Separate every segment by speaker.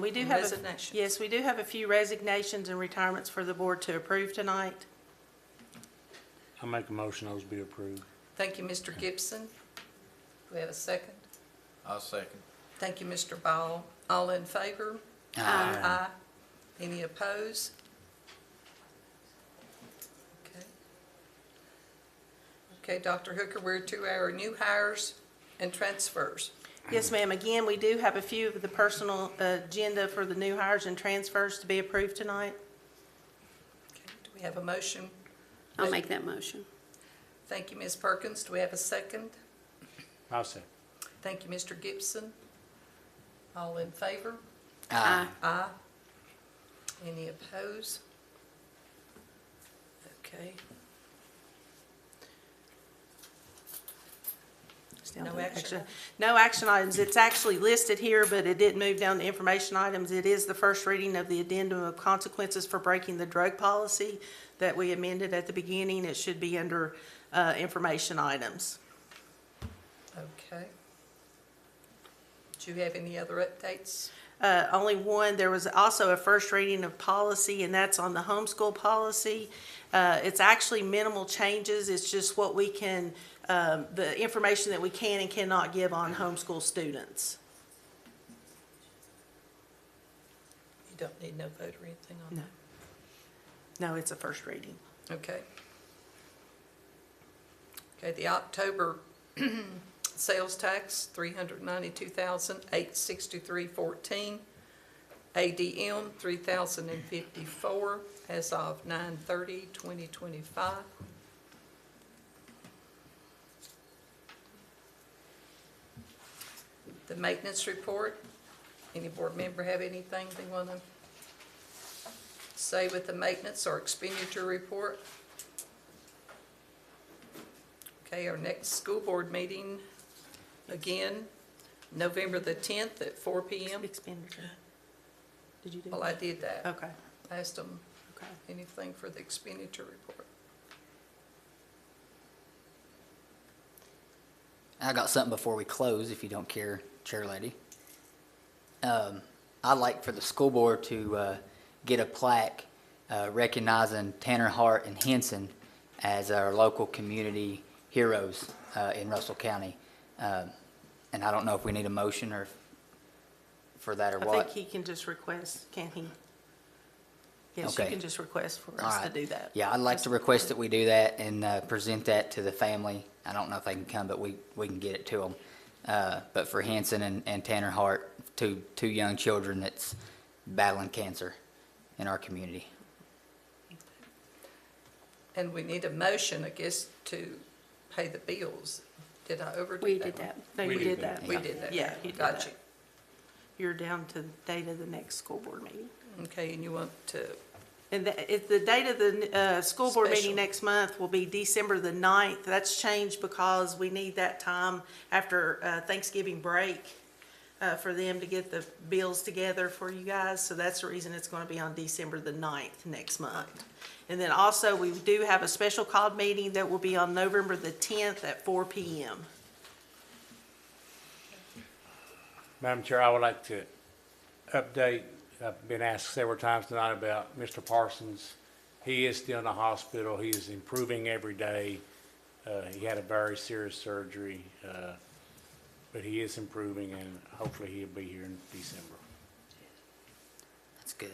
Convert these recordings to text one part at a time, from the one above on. Speaker 1: We do have. a-
Speaker 2: Resignations.
Speaker 1: Yes, we do have a few resignations and retirements for the board to approve tonight.
Speaker 3: I make a motion those be approved.
Speaker 2: Thank you, Mr. Gibson. Do we have a second?
Speaker 4: I'll second.
Speaker 2: Thank you, Mr. Ball. All in favor? Aye. Any opposed? Okay. Okay, Dr. Hooker, we're to our new hires and transfers.
Speaker 1: Yes, ma'am. Again, we do have a few of the personal agenda for the new hires and transfers to be approved tonight.
Speaker 2: Okay, Do we have a motion?
Speaker 5: I'll make that motion.
Speaker 2: Thank you, Ms. Perkins. Do we have a second?
Speaker 3: I'll second.
Speaker 2: Thank you, Mr. Gibson. All in favor?
Speaker 5: Aye.
Speaker 2: Aye. Any opposed? Okay,
Speaker 1: It's down
Speaker 2: No
Speaker 1: to the
Speaker 2: action items.
Speaker 1: No action items. It's actually listed here, but it didn't move down to information items. It is the first reading of the addendum of consequences for breaking the drug policy that we amended at the beginning. It should be under uh, information items.
Speaker 2: okay. Do you have any other updates?
Speaker 1: Uh, Only one, there was also a first reading of policy, and that's on the homeschool policy. Uh, It's actually minimal changes, it's just what we can, um, the information that we can and cannot give on homeschool students.
Speaker 2: You don't need no vote or anything on
Speaker 1: No. No, it's a first reading.
Speaker 2: that? Okay. Okay, the October sales tax, three hundred ninety-two thousand, eight sixty-three fourteen. ADM, three thousand and fifty-four, as of nine thirty, twenty twenty-five. The maintenance report, any board member have anything they wanna say with the maintenance or expenditure report? Okay, our next school board meeting, again, November the tenth at four P M.
Speaker 1: Expenditure. Did you do?
Speaker 2: Well, I did that.
Speaker 1: Okay,
Speaker 2: Asked them
Speaker 1: okay.
Speaker 2: anything for the expenditure report.
Speaker 6: I got something before we close, if you don't care, Chair Lady. Um, I'd like for the school board to uh, get a plaque uh, recognizing Tanner Hart and Henson as our local community heroes uh, in Russell County. Um, And I don't know if we need a motion or for that or
Speaker 1: I
Speaker 6: what.
Speaker 1: think he can just request, can he? Yes, you
Speaker 6: Okay.
Speaker 1: can just request for
Speaker 6: All
Speaker 1: us to
Speaker 6: right.
Speaker 1: do that.
Speaker 6: Yeah, I'd like to request that we do that and uh, present that to the family. I don't know if they can come, but we, we can get it to them. Uh, But for Hanson and, and Tanner Hart, two, two young children that's battling cancer in our community.
Speaker 2: And we need a motion, I guess, to pay the bills. Did I overdo that?
Speaker 5: We did
Speaker 2: one?
Speaker 5: that.
Speaker 1: No,
Speaker 3: We
Speaker 1: you
Speaker 3: did
Speaker 1: did
Speaker 3: that.
Speaker 1: that.
Speaker 2: We did that.
Speaker 1: Yeah, you did
Speaker 2: Got
Speaker 1: that. You're down to the date of the next school board meeting.
Speaker 2: you. Okay, and you want to,
Speaker 1: And the, if the date of the, uh, school board
Speaker 2: Special.
Speaker 1: meeting next month will be December the ninth. That's changed because we need that time after uh, Thanksgiving break, uh, for them to get the bills together for you guys. So that's the reason it's gonna be on December the ninth next month. And then also, we do have a special called meeting that will be on November the tenth at four P M.
Speaker 3: Madam Chair, I would like to update, I've been asked several times tonight about Mr. Parsons. He is still in the hospital. He is improving every day. Uh, he had a very serious surgery, uh, but he is improving and hopefully he'll be here in December.
Speaker 6: That's good.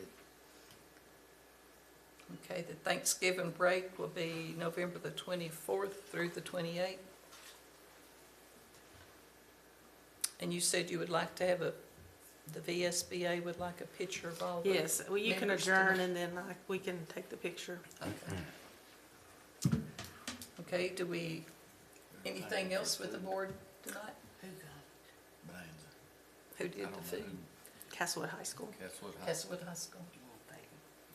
Speaker 2: okay, the Thanksgiving break will be November the 24th through the 28th. And you said you would like to have a, the VSBA would like a picture of all the
Speaker 1: Yes, well, you can
Speaker 2: members tonight.
Speaker 1: adjourn and then I- we can take the picture.
Speaker 2: Okay, do we, anything else with the board tonight? Who did the food?
Speaker 1: Castlewood High School.
Speaker 4: Castlewood High.
Speaker 2: Castlewood High School.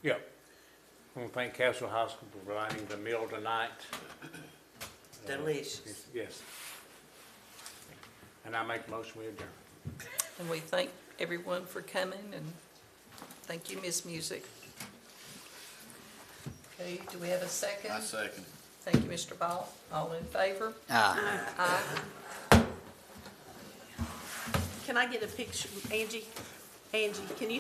Speaker 3: Yep. I want to thank Castle Hospital for providing the meal tonight. Uh,
Speaker 7: Delicious.
Speaker 3: Yes. And I make a motion we adjourn.
Speaker 2: And we thank everyone for coming, and thank you, Miss Music. Okay, do we have a second?
Speaker 4: I second.
Speaker 2: Thank you, Mr. Ball. All in favor?
Speaker 6: Ah.
Speaker 2: Aye.
Speaker 1: Can I get a picture, Angie? Angie, can you